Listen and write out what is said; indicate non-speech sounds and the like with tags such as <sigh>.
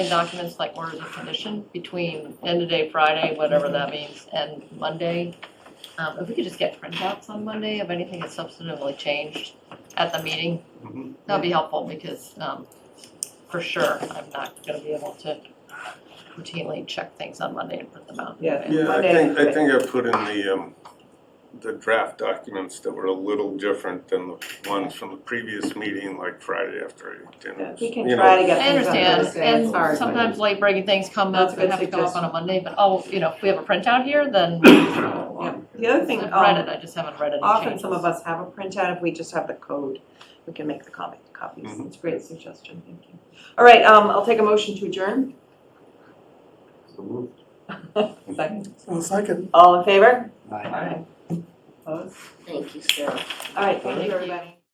documents like orders of condition between end of day Friday, whatever that means, and Monday. Um, If we could just get printouts on Monday of anything that's substantively changed at the meeting, Mhm. that'd be helpful because um, for sure, I'm not going to be able to routinely check things on Monday and print them out. Yeah. Yeah, I Monday, think, I okay. think I put in the, um, the draft documents that were a little different than the ones from the previous meeting, like Friday after I Yeah, dinner. We can you know. try to get I things on understand, Thursday, it's hard. and sometimes late breaking things come That's up a and have good to go up on suggestion. a Monday, but oh, you know, if we have a printout here, <coughs> then Yeah. The other thing, I've read it, I um, just haven't read any often changes. some of us have a printout, if we just have the code, we can make the comic copies, Mhm. it's a great suggestion, thank you. All right, um, I'll take a motion to adjourn, second, Well, second. all in favor? Aye. Opposed? Thank you, Sarah. All right, thank Thank you, you. everybody.